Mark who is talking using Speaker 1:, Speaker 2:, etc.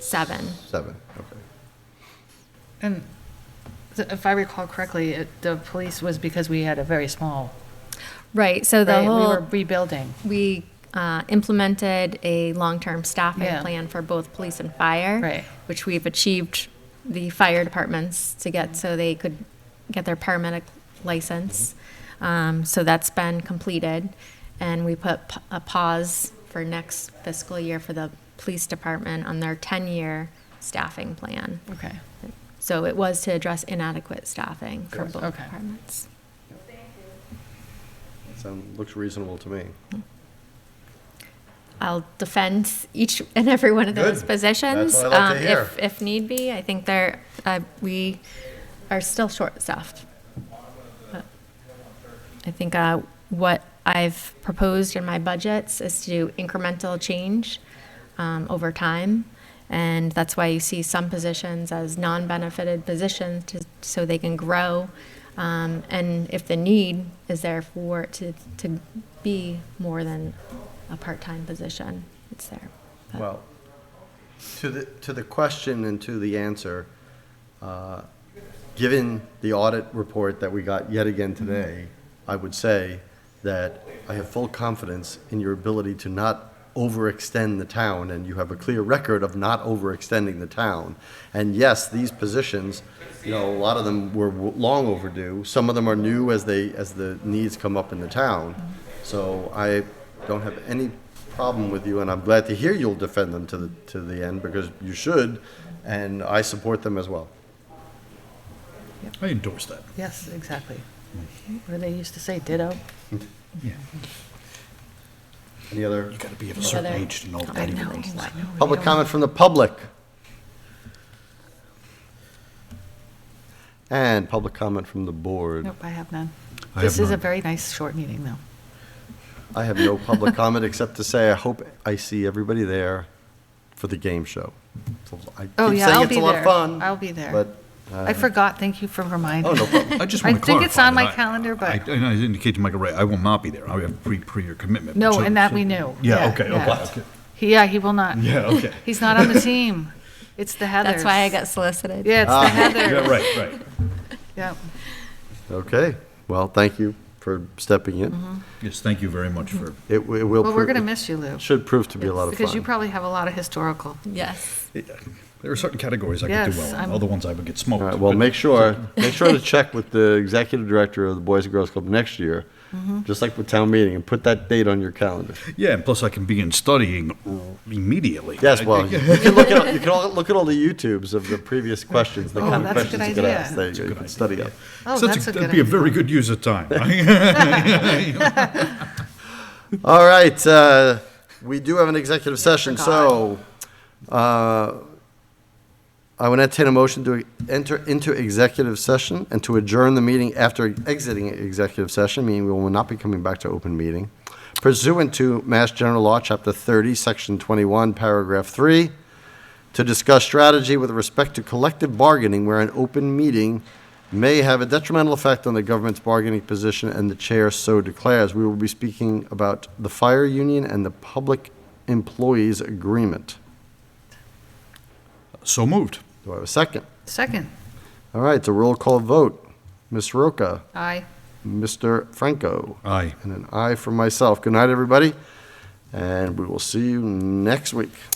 Speaker 1: seven.
Speaker 2: Seven, okay.
Speaker 3: And th- if I recall correctly, it, the police was because we had a very small,
Speaker 1: Right, so the
Speaker 3: right? We were
Speaker 1: whole,
Speaker 3: rebuilding.
Speaker 1: we uh, implemented a long-term staffing
Speaker 3: Yeah.
Speaker 1: plan for both police and fire.
Speaker 3: Right.
Speaker 1: Which we've achieved the fire departments to get, so they could get their paramedic license. Um, So that's been completed, and we put p- a pause for next fiscal year for the police department on their 10-year staffing plan.
Speaker 3: Okay.
Speaker 1: So it was to address inadequate staffing for
Speaker 2: Yes.
Speaker 1: both
Speaker 3: Okay.
Speaker 1: departments.
Speaker 2: Sound, looks reasonable to me.
Speaker 1: I'll defend each and every one of those
Speaker 2: Good.
Speaker 1: positions.
Speaker 2: That's what I like to
Speaker 1: um,
Speaker 2: hear.
Speaker 1: If, if need be, I think there, uh, we are still short staffed. I think uh, what I've proposed in my budgets is to do incremental change um, over time. And that's why you see some positions as non-benefited positions to, so they can grow. Um, and if the need is there for it to, to be more than a part-time position, it's there. But-
Speaker 2: Well, to the, to the question and to the answer, uh, given the audit report that we got yet again today, I would say that I have full confidence in your ability to not overextend the town, and you have a clear record of not overextending the town. And yes, these positions, you know, a lot of them were w- long overdue. Some of them are new as they, as the needs come up in the town. So I don't have any problem with you, and I'm glad to hear you'll defend them to the, to the end, because you should, and I support them as well.
Speaker 4: I endorse that.
Speaker 3: Yes, exactly. What do they used to say? Ditto?
Speaker 4: Yeah.
Speaker 2: Any other
Speaker 4: You gotta be of a certain
Speaker 1: Other-
Speaker 4: age to know
Speaker 1: I
Speaker 4: that.
Speaker 1: know,
Speaker 4: even.
Speaker 1: I know.
Speaker 2: public comment from the public? And public comment from the board.
Speaker 3: Nope, I have none.
Speaker 4: I
Speaker 3: This
Speaker 4: have
Speaker 3: is a
Speaker 4: none.
Speaker 3: very nice short meeting, though.
Speaker 2: I have no public comment, except to say I hope I see everybody there for the game show. So I
Speaker 3: Oh,
Speaker 2: keep
Speaker 3: yeah,
Speaker 2: saying
Speaker 3: I'll
Speaker 2: it's
Speaker 3: be
Speaker 2: a lot
Speaker 3: there.
Speaker 2: of fun,
Speaker 3: I'll be there.
Speaker 2: But, uh,
Speaker 3: I forgot. Thank you for reminding.
Speaker 2: oh, no problem.
Speaker 4: I just
Speaker 3: I
Speaker 4: want to clarify.
Speaker 3: think it's on my
Speaker 4: that I-
Speaker 3: calendar, but-
Speaker 4: I- And I indicate to Michael Ray, I will not be there. I have pre, pre your commitment.
Speaker 3: No,
Speaker 4: So-
Speaker 3: and that
Speaker 4: so-
Speaker 3: we knew.
Speaker 4: Yeah, okay, okay,
Speaker 3: yeah.
Speaker 4: okay.
Speaker 3: He- Yeah, he will not.
Speaker 4: Yeah, okay.
Speaker 3: He's not on the team. It's the Heathers.
Speaker 1: That's why I got solicited.
Speaker 3: Yeah, it's
Speaker 2: Ah.
Speaker 3: the Heather.
Speaker 4: Yeah, right, right.
Speaker 3: Yep.
Speaker 2: Okay, well, thank you for stepping in.
Speaker 4: Yes, thank you very much for,
Speaker 2: It w- it will.
Speaker 3: Mm-hmm. Well, we're
Speaker 2: pro-
Speaker 3: going to miss you, Lou,
Speaker 2: Should prove to be a lot of fun.
Speaker 3: because you probably have a lot of historical.
Speaker 1: Yes.
Speaker 4: there are certain categories I could do
Speaker 3: Yes,
Speaker 4: well in,
Speaker 3: I'm-
Speaker 4: other ones I would get
Speaker 2: All right,
Speaker 4: smoked.
Speaker 2: well,
Speaker 4: but-
Speaker 2: make sure, make sure to check with the executive director of the Boys and Girls Club next year,
Speaker 3: Mm-hmm.
Speaker 2: just like with town meeting, and put that date on your calendar.
Speaker 4: Yeah, and plus I can begin studying immediately.
Speaker 2: Yes,
Speaker 4: I
Speaker 2: well, you
Speaker 4: think-
Speaker 2: can look at, you can all, look at all the YouTubes of the previous questions, the
Speaker 3: Oh,
Speaker 2: kind of
Speaker 3: that's a good
Speaker 2: questions you could
Speaker 3: idea.
Speaker 2: ask. There you go, you can study up.
Speaker 3: Oh,
Speaker 4: So
Speaker 3: that's a
Speaker 4: That'd
Speaker 3: good
Speaker 4: be a
Speaker 3: idea.
Speaker 4: very good use of time.
Speaker 2: All right, uh, we do have an executive session, so uh, I would entertain a motion to enter into executive session and to adjourn the meeting after exiting executive session, meaning we will not be coming back to open meeting. Pursuant to Mass General Law, Chapter 30, Section 21, Paragraph 3, to discuss strategy with respect to collective bargaining where an open meeting may have a detrimental effect on the government's bargaining position and the chair so declares. We will be speaking about the fire union and the public employees agreement.
Speaker 4: uh, So moved.
Speaker 2: Do I have a second?
Speaker 3: Second,
Speaker 2: All right, it's a roll call vote. Ms. Roca,
Speaker 3: aye.
Speaker 2: Mr. Franco,
Speaker 4: Aye.
Speaker 2: and an aye for myself. Good night, everybody, and we will see you next week.